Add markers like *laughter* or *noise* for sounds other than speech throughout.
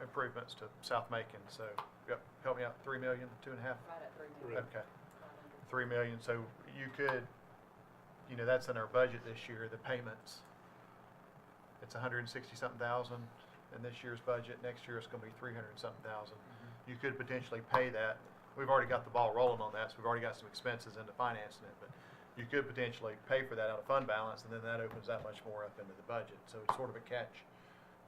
improvements to South Macon, so, yep, help me out, three million, two and a half? Right at three Right. million. Okay, five hundred. three million, so you could, you know, that's in our budget this year, the payments. It's a hundred and sixty-something thousand in this year's budget, next year it's gonna be three hundred and something thousand. You could potentially pay that, we've already got the ball rolling on that, so we've already got some expenses into financing it, but you could potentially pay for that out of fund balance, and then that opens that much more up into the budget, so it's sort of a catch,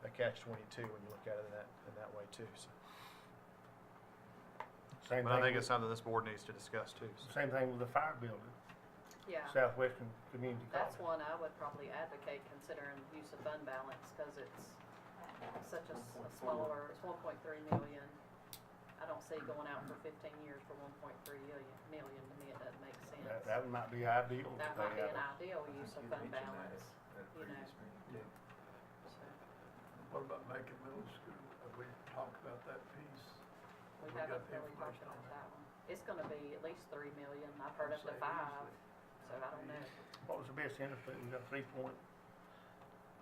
a catch twenty-two when you look at it in that, in that way too, so. Same But I thing, think with- it's something this board needs to discuss too, so. same thing with the fire building, Yeah, Southwestern Community that's one College. I would probably advocate considering use of fund balance, cause it's such a s- a smaller, it's one point three million. I don't see going out for fifteen years for one point three million, million, to me, it doesn't make sense. That, that might be ideal to That might pay be out an of- ideal I use of think you fund mentioned that balance, at- at you know. previous meeting. so What about Macon Middle School? Have we talked about that piece? we We got haven't the really talked information on about that. that one. It's gonna be at least three million, I've heard up to Say five, easily. so I don't know. What was the best interest rate? We got three point,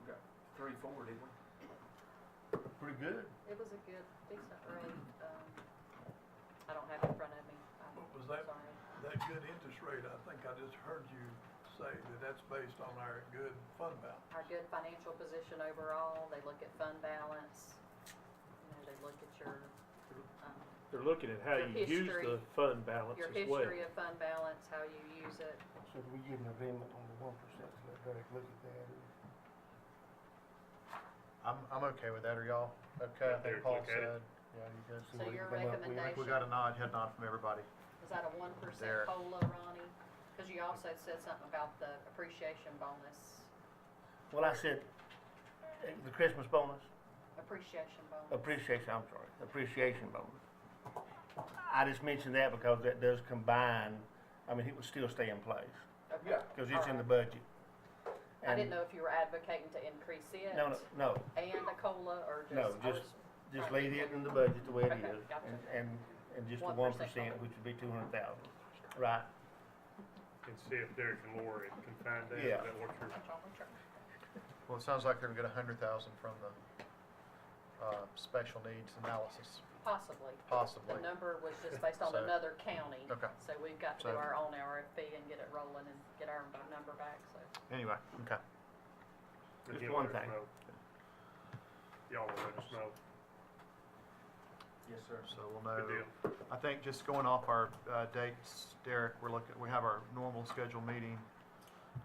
We got three, four, didn't we? pretty good. It was a good, decent rate, um, I don't have it in front of me. I'm What was that? Sorry. That good interest rate, I think I just heard you say that that's based on our good fund balance. Our good financial position overall, they look at fund balance, you know, they look at your, um, They're looking at how Your you use history. the fund balance your as well. history of fund balance, how you use it. So if we get an agreement on the one percent, let Derek look at that. I'm, I'm okay with that, are y'all? Okay, I Yeah, think Derek, Paul look at said, it. yeah, you guys. See So what he your come up with. We recommendation, got a nod, head nod from everybody. is that a one percent There. COLA, Ronnie? Because you also said something about the appreciation bonus, Well, I said, eh, the Christmas bonus, appreciation bonus. appreciation, I'm sorry, appreciation bonus. I just mentioned that because that does combine, I mean, it would still stay in place, Okay. Yeah. because it's in the budget. Uh-huh. I didn't And- know if you were advocating to increase it No, no, no, and a COLA or just. I No, just- was- just Right. leave it in the budget the way it Okay, is, gotcha. and, and, and just the one 1% percent, which would be two hundred thousand, right? And see if Derek and Lori can find out Yeah. about what your That's all we're trying- Well, it sounds like they're gonna get a hundred thousand from the, uh, special needs analysis, Possibly. possibly. The number was just based on So- another county. Okay. So we've got to So- do our own RFP and get it rolling and get our number back, so. Anyway, okay. Just Again, one let us thing. know. Y'all will let us know. Yes, sir. So we'll Uh, Good know. deal. I think just going off our, uh, dates, Derek, we're looking, we have our normal scheduled meeting,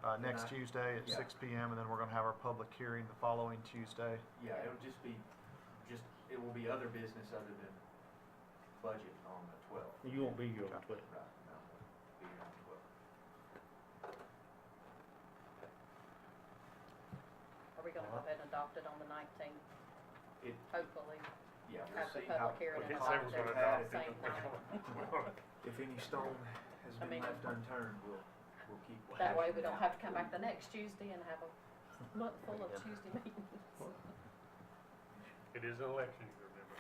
uh, next Tonight. Tuesday at Yeah. six P M. And then we're gonna have our public hearing the following Tuesday. Yeah, it'll just be, just, it will be other business other than budget on the twelfth. You won't be here on Okay. twelve. Right, no, we'll be here on the 12th. Are we gonna go ahead and adopt it on the nineteenth, It, hopefully? yeah, we'll Have the see how. public hearing We and did all say that we're gonna at the adopt same night. *laughs* If any stone has I been mean- left unturned, we'll, we'll keep. That way we hashing it don't out. have to come back the next Tuesday and have a month full of Yeah. Tuesday meetings. It is an election, you remember.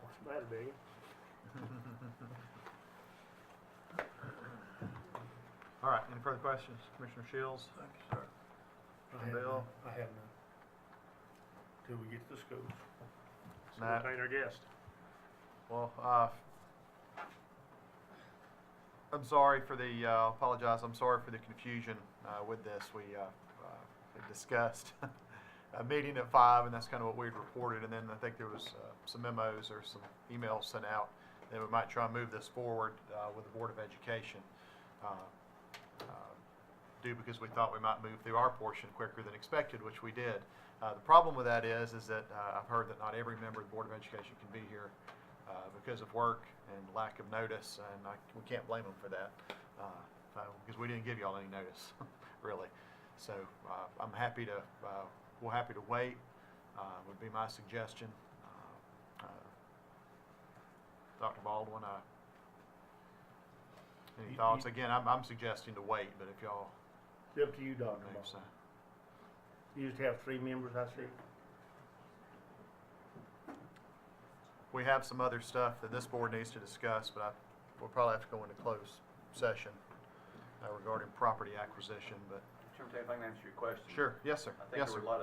What's the matter, Megan? All right, any further questions? Commissioner Shields? Thank you, sir. I have Bill? none. I have none. Till we get to the schools. So Matt. entertain our guest. Well, uh, I'm sorry for the, uh, apologize, I'm sorry for the confusion, uh, with this. We, uh, uh, discussed *laughs* a meeting at five, and that's kind of what we'd reported, and then I think there was, uh, some memos or some emails sent out that we might try and move this forward, uh, with the Board of Education. uh, uh, Do because we thought we might move through our portion quicker than expected, which we did. Uh, the problem with that is, is that, uh, I've heard that not every member of the Board of Education can be here uh, because of work and lack of notice, and I, we can't blame them for that, uh, uh, because we didn't give y'all any notice, *laughs* really. So, uh, I'm happy to, uh, we're happy to wait, uh, would be my suggestion. Uh, uh, Dr. Baldwin, uh, You- any you- thoughts? Again, I'm, I'm suggesting to wait, but if y'all It's up to you, Dr. move, so. Ball. You just have three members, I see. We have some other stuff that this board needs to discuss, but I, we'll probably have to go into closed session uh, regarding property acquisition, but, Chairman Tate, if I can answer your question. sure, yes, sir, I yes, think sir. there were a lot of